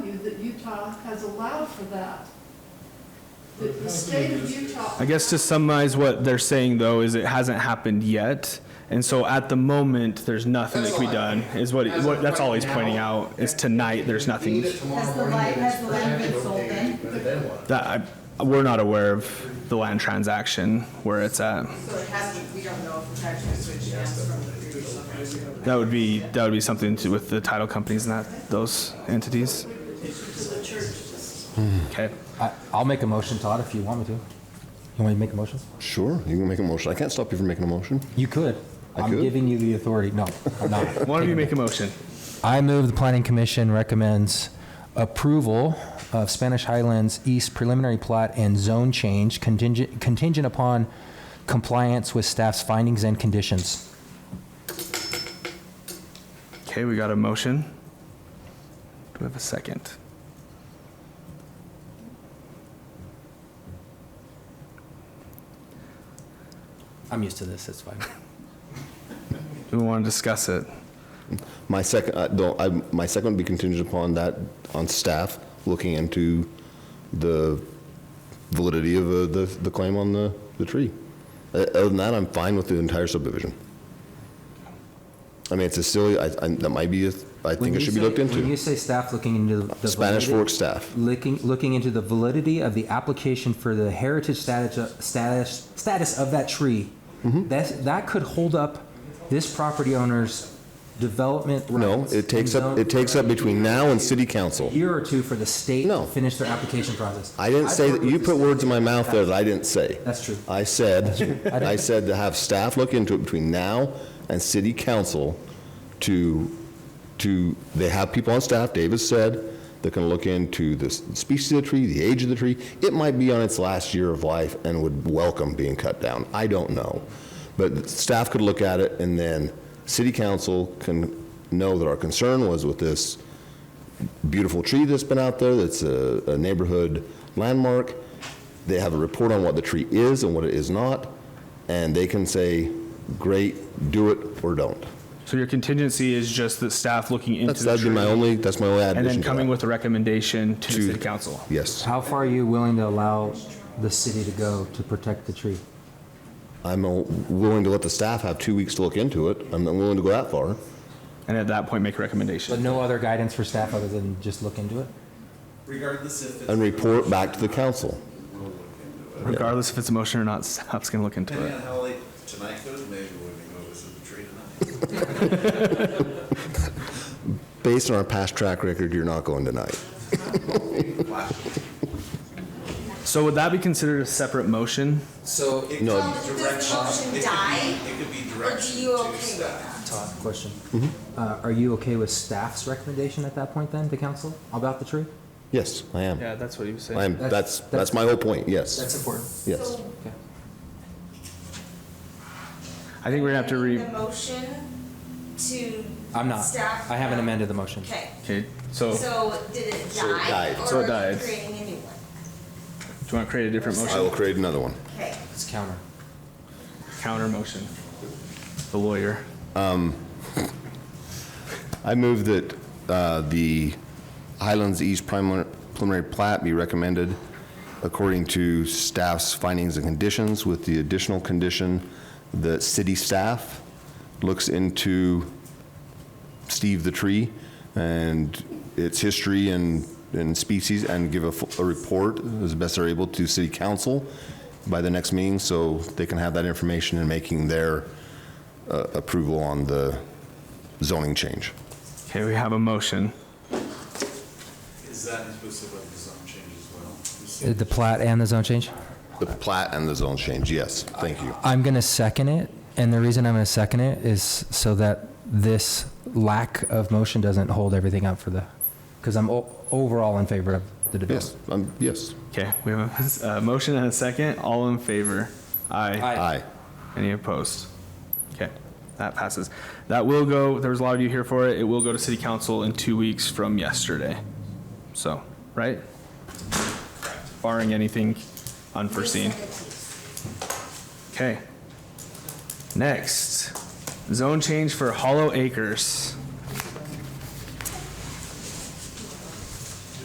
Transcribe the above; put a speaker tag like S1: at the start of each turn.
S1: Utah has allowed for that.
S2: But
S1: The-
S2: it
S1: The
S2: has to
S1: state
S2: be
S1: of
S2: districts.
S1: Utah.
S3: I guess to summarize what they're saying though is it hasn't happened yet. And so at the moment, there's nothing that can be done is what,
S4: As
S3: what,
S4: of
S3: that's all he's
S4: right
S3: pointing
S4: now,
S3: out is tonight, there's
S4: We
S3: nothing
S4: need it tomorrow
S5: Has the
S4: morning,
S5: light-
S4: and it's
S5: has the light
S4: presented
S5: been sold
S4: okay,
S5: then?
S4: But then what?
S3: that I, we're not aware of the land transaction where it's at.
S6: So it hasn't, we don't know if we're actually switching us from the previous owner.
S3: That would be, that would be something to, with the title companies and that, those entities. Okay.
S7: I- I'll make a motion, Todd, if you want me to. You want me to make a motion?
S8: Sure, you can make a motion. I can't stop you from making a motion.
S7: You could.
S8: I
S7: I'm
S8: could?
S7: giving you the authority. No, I'm not.
S3: Why don't you make a motion?
S7: I move the planning commission recommends approval of Spanish Highlands East preliminary plat and zone change contingent, contingent upon compliance with staff's findings and conditions.
S3: Okay, we got a motion. Do we have a second?
S7: I'm used to this, it's fine.
S3: Do we want to discuss it?
S8: My second, uh, don't, I, my second would be contingent upon that, on staff looking into the validity of uh, the, the claim on the, the tree. Uh, Other than that, I'm fine with the entire subdivision. I mean, it's a silly, I, I, that might be, a- I think it should be looked
S7: When you
S8: into.
S7: say staff looking into the.
S8: Spanish Fork staff.
S7: Looking, looking into the validity of the application for the heritage status, status, status of that tree.
S8: Mm-hmm.
S7: That, that could hold up this property owner's development
S8: No,
S7: rights
S8: it takes
S7: and
S8: up,
S7: zone-
S8: it takes up between now and city council.
S7: year or two for the state
S8: No.
S7: to finish their application process.
S8: I didn't
S7: I've
S8: say,
S7: worked
S8: that. you
S7: with the
S8: put
S7: state.
S8: words in my mouth there that I didn't say.
S7: That's true.
S8: I said, I said to have staff look into it between now and city council to, to, they have people on staff, Davis said, that can look into the s- species of the tree, the age of the tree. It might be on its last year of life and would welcome being cut down. I don't know. But staff could look at it and then city council can know that our concern was with this beautiful tree that's been out there, that's a, a neighborhood landmark. They have a report on what the tree is and what it is not, and they can say, great, do it or don't.
S3: So your contingency is just the staff looking into
S8: That's,
S3: the
S8: that'd be
S3: tree
S8: my only, that's my only
S3: and then
S8: addition to
S3: coming
S8: that.
S3: with a recommendation to the
S8: To-
S3: city council.
S8: Yes,
S7: How far are you willing to allow the city to go to protect the tree?
S8: I'm uh, willing to let the staff have two weeks to look into it. I'm not willing to go that far.
S3: And at that point, make a
S7: But
S3: recommendation.
S7: no other guidance for staff other than just look into it?
S4: Regardless if it's.
S8: And report back to the council.
S3: Regardless if it's a motion or not, staff's gonna look into
S9: Depending
S3: it.
S9: on how late tonight goes, maybe we can go visit the tree tonight.
S8: Based on our past track record, you're not going tonight.
S3: So would that be considered a separate motion?
S7: So,
S9: It
S8: No.
S9: could be
S5: Does this
S9: direction-
S5: motion
S9: it could be-
S5: die,
S9: It could be
S5: Or do you
S9: direction
S5: okay
S9: to
S5: with that?
S9: staff.
S7: Todd, question.
S8: Mm-hmm.
S7: Uh, Are you okay with staff's recommendation at that point then to council about the tree?
S8: Yes, I am.
S3: that's what you said.
S8: I am, that's, that's my whole point, yes,
S7: important.
S8: yes.
S5: So
S3: I think we're gonna have to
S5: amending
S3: re,
S5: The motion to.
S7: I'm not.
S5: Staff.
S7: I haven't amended the motion.
S5: Okay,
S3: okay, so do
S5: so did it
S8: So it
S5: die?
S8: died.
S5: or
S3: So it
S5: are you
S3: died.
S5: Creating a new one,
S3: you wanna create a different
S8: I
S3: motion?
S8: will create another one.
S5: okay.
S7: It's counter.
S3: Counter motion. The lawyer.
S8: I move that uh, the Highlands East primar- preliminary plat be recommended according to staff's findings and conditions, with the additional condition that city staff looks into Steve the tree and its history and, and species, and give a, fu- a report as best they're able to city council by the next meeting, so they can have that information in making their uh, approval on the zoning change.
S3: Okay, we have a motion.
S9: Is that inclusive of the zone change as well?
S7: Uh, The plat and the zone change?
S8: The plat and the zone change, yes, thank you.
S7: I'm going to second it, and the reason I'm going to second it is so that this lack of motion doesn't hold everything up for the, because I'm o- overall in favor of the
S8: Yes,
S7: development.
S8: um, yes,
S3: Okay, we have a, a motion and a second. All in favor? Aye.
S8: aye.
S3: Any opposed? Okay, that passes. That will go, there was a lot of you here for it. It will go to city council in two weeks from yesterday. So, right? Barring anything unforeseen. Okay. Next, zone change for Hollow Acres.